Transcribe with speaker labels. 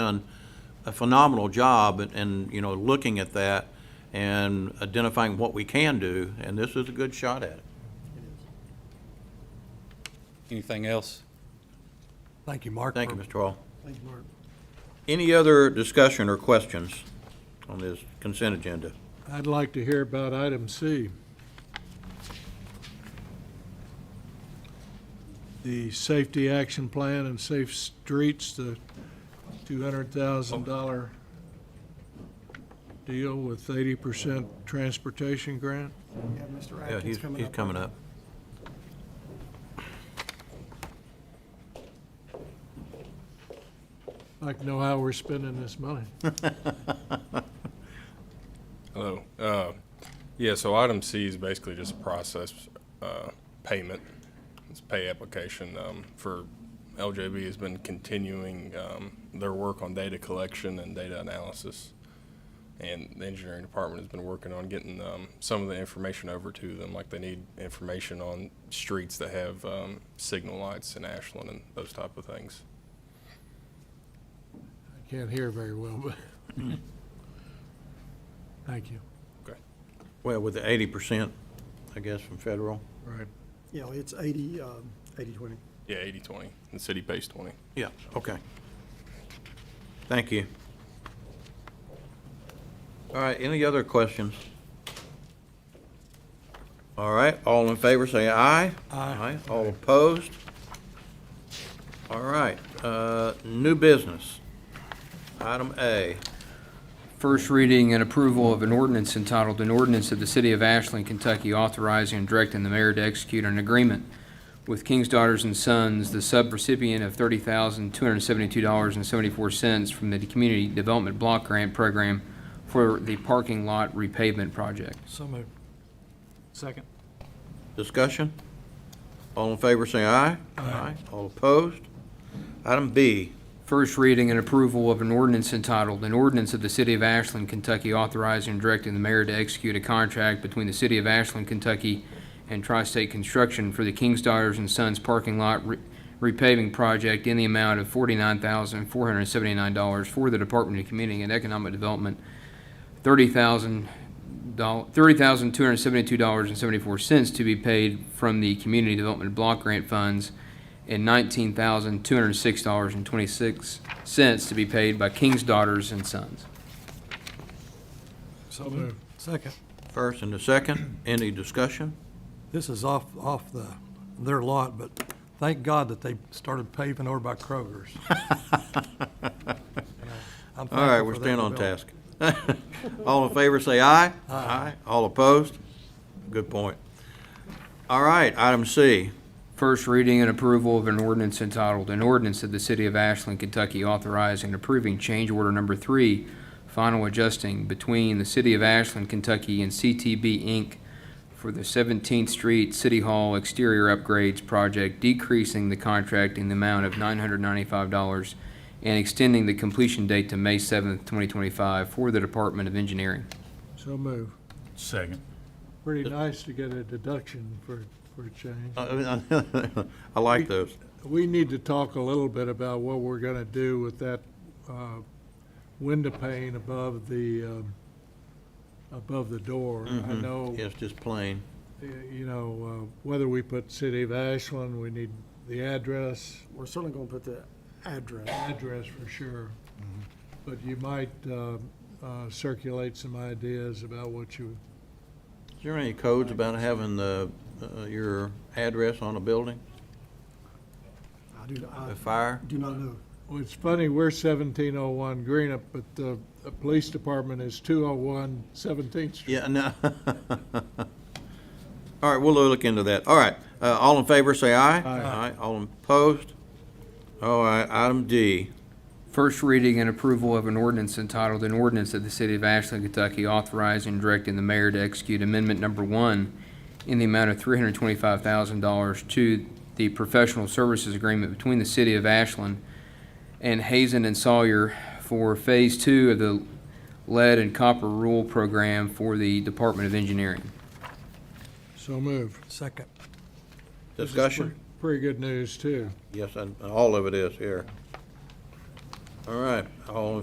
Speaker 1: done a phenomenal job and- and, you know, looking at that and identifying what we can do, and this is a good shot at it.
Speaker 2: Anything else?
Speaker 3: Thank you, Mark.
Speaker 1: Thank you, Mr. Hall.
Speaker 3: Thank you, Mark.
Speaker 1: Any other discussion or questions on this consent agenda?
Speaker 3: I'd like to hear about item C. The Safety Action Plan and Safe Streets, the $200,000
Speaker 1: Oh.
Speaker 3: deal with 80% transportation grant.
Speaker 4: Yeah, Mr.
Speaker 1: Yeah,
Speaker 4: Atkins
Speaker 1: he's,
Speaker 4: coming
Speaker 1: he's
Speaker 4: up.
Speaker 1: coming up.
Speaker 3: I'd like to know how we're spending this money.
Speaker 5: Hello. Uh, Yeah, so item C is basically just a process uh, payment. It's pay application um, for LJB has been continuing um, their work on data collection and data analysis. And the engineering department has been working on getting um, some of the information over to them, like they need information on streets that have um, signal lights in Ashland and those type of things.
Speaker 3: I can't hear very well, but. Thank you.
Speaker 1: Well, with the eighty percent, I guess, from federal.
Speaker 3: Right.
Speaker 4: Yeah, it's 80, um, 80, 20.
Speaker 5: Yeah, 80/20, the city pays 20.
Speaker 1: Yeah, okay. Thank you. All right, any other questions? All right, all in favor, say aye. Aye. All opposed? All right, uh, new business. Item A.
Speaker 6: First reading and approval of an ordinance entitled, "An Ordinance of the City of Ashland, Kentucky Authorizing and Directing the Mayor to Execute an Agreement with King's Daughters and Sons, the subrecipient of $30,272.74 from the Community Development Block Grant Program for the Parking Lot Repavement Project."
Speaker 3: So moved. Second.
Speaker 1: Discussion? All in favor, say aye. Aye. All opposed? Item B.
Speaker 6: First reading and approval of an ordinance entitled, "An Ordinance of the City of Ashland, Kentucky Authorizing and Directing the Mayor to Execute a Contract Between the City of Ashland, Kentucky and Tri-State Construction for the King's Daughters and Sons Parking Lot Re- Repaving Project in the amount of $49,479 for the Department of Community and Economic Development, $30,000 $30,272.74 to be paid from the Community Development Block Grant Funds and nineteen thousand two hundred six dollars and twenty six cents to be paid by King's Daughters and Sons.
Speaker 3: So moved.
Speaker 7: Second,
Speaker 1: First and the second, any discussion?
Speaker 7: this is off, off the, their lot, but thank God that they started paving over by Kroger's. All
Speaker 1: All right, we're staying on task. All in favor, say aye. Aye. All opposed? Good point. All right, item C.
Speaker 6: First reading and approval of an ordinance entitled, An Ordinance of the City of Ashland, Kentucky authorizing and approving change order number three, final adjusting between the City of Ashland, Kentucky and CTB Inc. for the Seventeenth Street City Hall exterior upgrades project, decreasing the contract in the amount of nine hundred ninety-five dollars and extending the completion date to May seventh, twenty twenty-five for the Department of Engineering.
Speaker 3: So moved.
Speaker 8: Second.
Speaker 3: Pretty nice to get a deduction for, for a change.
Speaker 1: Uh, I like those.
Speaker 3: We need to talk a little bit about what we're gonna do with that, uh, window pane above the, um, above the door. I
Speaker 1: Mhm.
Speaker 3: know,
Speaker 1: Yes, just plain.
Speaker 3: uh, you know, uh, whether we put City of Ashland, we need the address,
Speaker 4: We're certainly going to put the address.
Speaker 3: address for sure. But you might, uh, uh, circulate some ideas about what you,
Speaker 1: Is there any codes about having the, uh, your address on a building,
Speaker 4: I do, I
Speaker 1: a fire?
Speaker 4: do not know.
Speaker 3: Well, it's funny, we're seventeen oh one Greenup, but the, the police department is 201 17th Street.
Speaker 1: Yeah, no. All right, we'll look into that. All right, uh, all in favor, say aye. Aye. All opposed? All right, item D.
Speaker 6: First reading and approval of an ordinance entitled, an ordinance of the City of Ashland, Kentucky authorizing and directing the mayor to execute amendment number one in the amount of three hundred twenty-five thousand dollars to the professional services agreement between the City of Ashland and Hazen and Sawyer for Phase Two of the Lead and Copper Rule Program for the Department of Engineering.
Speaker 3: So moved.
Speaker 7: Second,
Speaker 1: Discussion?
Speaker 3: Pretty good news, too.
Speaker 1: Yes, and all of it is here. All right, all in